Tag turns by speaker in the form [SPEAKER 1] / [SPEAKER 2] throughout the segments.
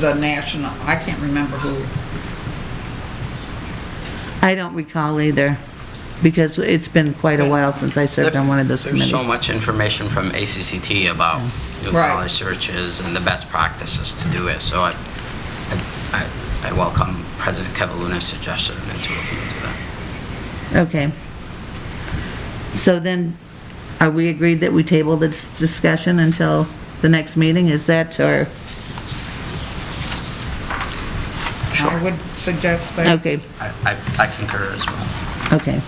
[SPEAKER 1] the national, I can't remember who.
[SPEAKER 2] I don't recall either, because it's been quite a while since I served on one of those
[SPEAKER 3] There's
[SPEAKER 2] committees.
[SPEAKER 3] so much information from ACCT about new
[SPEAKER 1] Right.
[SPEAKER 3] college searches and the best practices to do it, so I, I- I, I welcome President Kevaluna's suggestion into looking into that.
[SPEAKER 2] Okay. So then, are we agreed that we table this discussion until the next meeting? Is that, or,
[SPEAKER 1] I would suggest that.
[SPEAKER 2] okay,
[SPEAKER 3] I, I- I concur as well.
[SPEAKER 2] okay.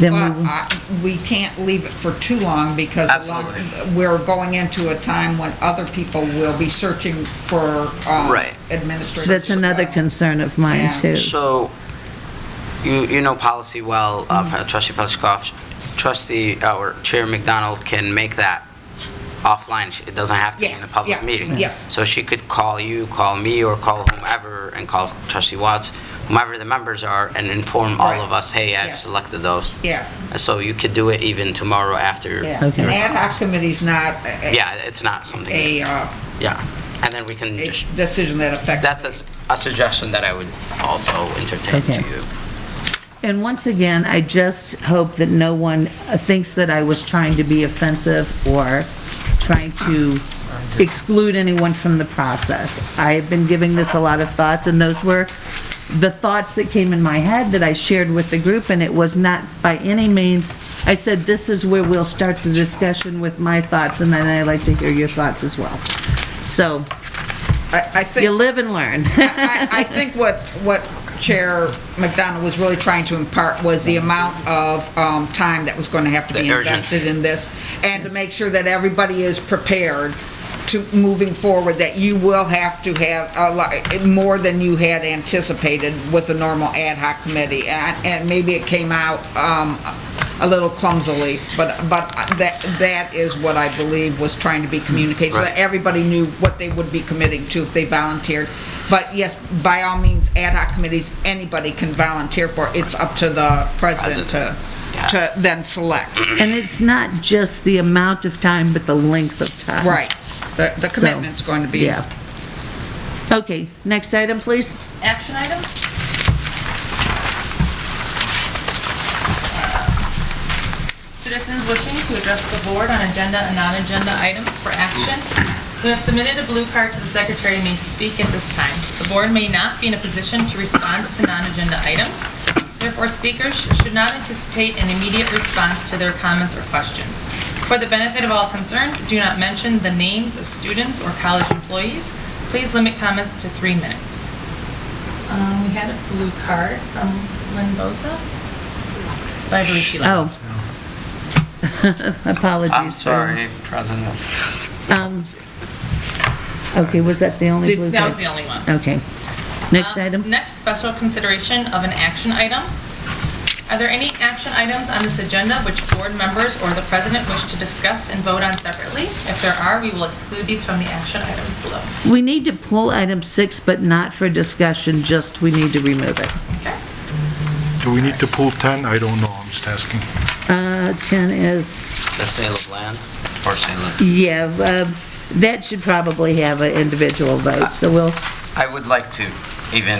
[SPEAKER 2] Then
[SPEAKER 1] But
[SPEAKER 2] we, will-
[SPEAKER 1] I- we can't leave it for too long because along-
[SPEAKER 3] Absolutely.
[SPEAKER 1] we're going into a time when other people will be searching for um,
[SPEAKER 3] Right.
[SPEAKER 1] administrators.
[SPEAKER 2] so that's another concern of mine,
[SPEAKER 1] Yeah.
[SPEAKER 2] too.
[SPEAKER 3] So, you, you know policy well, uh,
[SPEAKER 1] Mm-hmm.
[SPEAKER 3] trustee Petchkoff. Trustee, uh, or Chair McDonald can make that offline. She- It doesn't have to be in a
[SPEAKER 1] Yeah,
[SPEAKER 3] public
[SPEAKER 1] yeah,
[SPEAKER 3] meeting.
[SPEAKER 1] yeah.
[SPEAKER 3] So she could call you, call me, or call whomever, and call trustee Watts, whomever the members are, and inform all
[SPEAKER 1] Right.
[SPEAKER 3] of us, hey, I've
[SPEAKER 1] Yes.
[SPEAKER 3] selected those.
[SPEAKER 1] Yeah,
[SPEAKER 3] And So you could do it even tomorrow after.
[SPEAKER 1] yeah.
[SPEAKER 2] Okay.
[SPEAKER 1] An
[SPEAKER 3] your-
[SPEAKER 1] ad hoc committee's not a-
[SPEAKER 3] Yeah, it's not something,
[SPEAKER 1] a, uh,
[SPEAKER 3] yeah. And then we can
[SPEAKER 1] a
[SPEAKER 3] just,
[SPEAKER 1] decision that affects.
[SPEAKER 3] that's a s- a suggestion that I would also entertain to
[SPEAKER 2] Okay.
[SPEAKER 3] you.
[SPEAKER 2] And once again, I just hope that no one uh, thinks that I was trying to be offensive or trying to exclude anyone from the process. I have been giving this a lot of thoughts, and those were the thoughts that came in my head that I shared with the group, and it was not by any means, I said, this is where we'll start the discussion with my thoughts, and then I'd like to hear your thoughts as well. So,
[SPEAKER 1] I I think.
[SPEAKER 2] you live and learn.
[SPEAKER 1] I, I think what, what Chair McDonald was really trying to impart was the amount of um, time that was going to have to be
[SPEAKER 3] The urgency.
[SPEAKER 1] invested in this, and to make sure that everybody is prepared to, moving forward, that you will have to have a lot, more than you had anticipated with the normal ad hoc committee, and, and maybe it came out um, a little clumsily, but, but that, that is what I believe was trying to be communicated, so that
[SPEAKER 3] Right.
[SPEAKER 1] everybody knew what they would be committing to if they volunteered. But yes, by all means, ad hoc committees, anybody can volunteer for. it. It's up to the president to,
[SPEAKER 3] Yeah.
[SPEAKER 1] to then select.
[SPEAKER 2] And it's not just the amount of time, but the length of time.
[SPEAKER 1] Right. The, the
[SPEAKER 2] So,
[SPEAKER 1] commitment's going to be.
[SPEAKER 2] Yeah. Okay, next item, please.
[SPEAKER 4] Action items? Citizens wishing to address the board on agenda and non-agenda items for action who have submitted a blue card to the secretary may speak at this time. The board may not be in a position to respond to non-agenda items. Therefore, speakers sh- should not anticipate an immediate response to their comments or questions. For the benefit of all concerned, do not mention the names of students or college employees. Please limit comments to three minutes. Um, We had a blue card from Lynn Boza. But I believe she left.
[SPEAKER 2] Oh. Apologies.
[SPEAKER 3] I'm
[SPEAKER 2] for-
[SPEAKER 3] sorry, President.
[SPEAKER 2] Okay, was that the only
[SPEAKER 1] Did-
[SPEAKER 2] blue
[SPEAKER 4] That was the
[SPEAKER 2] card?
[SPEAKER 4] only one.
[SPEAKER 2] Okay. Next
[SPEAKER 4] Um,
[SPEAKER 2] item?
[SPEAKER 4] Next, special consideration of an action item. Are there any action items on this agenda which board members or the president wish to discuss and vote on separately? If there are, we will exclude these from the action items below.
[SPEAKER 2] We need to pull item six, but not for discussion, just we need to remove it.
[SPEAKER 4] Okay?
[SPEAKER 5] Do we need to pull 10? I don't know, I'm just asking.
[SPEAKER 2] Uh, 10 is,
[SPEAKER 3] The sale of land or sale of...
[SPEAKER 2] yeah, uh, that should probably have an individual vote, so we'll,
[SPEAKER 3] I would like to, even,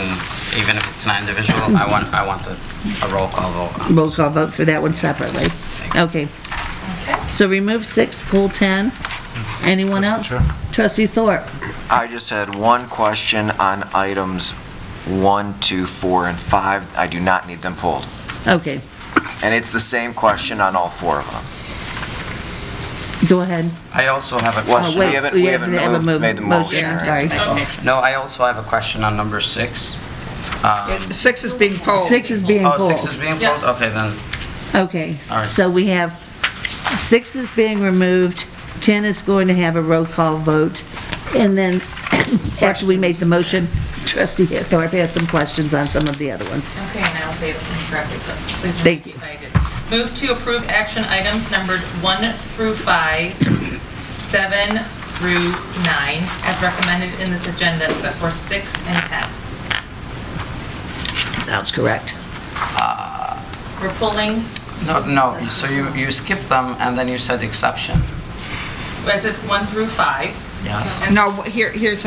[SPEAKER 3] even if it's not individual, I want, I want a a roll call vote. on
[SPEAKER 2] roll call vote for that one separately. Okay.
[SPEAKER 4] Okay.
[SPEAKER 2] So remove six, pull 10. Anyone else?
[SPEAKER 5] Chair.
[SPEAKER 2] Trustee Thorpe?
[SPEAKER 6] I just had one question on items one, two, four, and 5. I do not need them pulled.
[SPEAKER 2] Okay,
[SPEAKER 6] And it's the same question on all four of them.
[SPEAKER 2] go ahead.
[SPEAKER 3] I also have a
[SPEAKER 6] Well,
[SPEAKER 2] Oh, wait,
[SPEAKER 6] we
[SPEAKER 3] question.
[SPEAKER 6] haven't,
[SPEAKER 2] we
[SPEAKER 6] we
[SPEAKER 2] haven't
[SPEAKER 6] haven't
[SPEAKER 2] had a
[SPEAKER 6] moved-
[SPEAKER 2] move-
[SPEAKER 6] made the
[SPEAKER 2] motion, I'm
[SPEAKER 6] motion. right?
[SPEAKER 2] sorry.
[SPEAKER 1] Okay.
[SPEAKER 3] No, I also have a question on number six.
[SPEAKER 1] Six is being polled.
[SPEAKER 2] Six is being
[SPEAKER 3] Oh, six is
[SPEAKER 2] pulled.
[SPEAKER 3] being
[SPEAKER 4] Yeah.
[SPEAKER 3] pulled? Okay, then,
[SPEAKER 2] Okay,
[SPEAKER 3] All right.
[SPEAKER 2] so we have, six is being removed, 10 is going to have a roll call vote, and then after we make the motion, trustee Thorpe has some questions on some of the other ones.
[SPEAKER 4] Okay, and I will say this incorrectly, but please
[SPEAKER 2] Thank
[SPEAKER 4] remember if I did. Move to approve action items numbered 1 through 5, 7 through 9, as recommended in this agenda, except for 6 and 10.
[SPEAKER 2] Sounds correct.
[SPEAKER 4] We're pulling,
[SPEAKER 3] no, no, so you, you skipped them and then you said exception.
[SPEAKER 4] I said 1 through 5.
[SPEAKER 3] Yes.
[SPEAKER 4] and
[SPEAKER 1] No, here, here's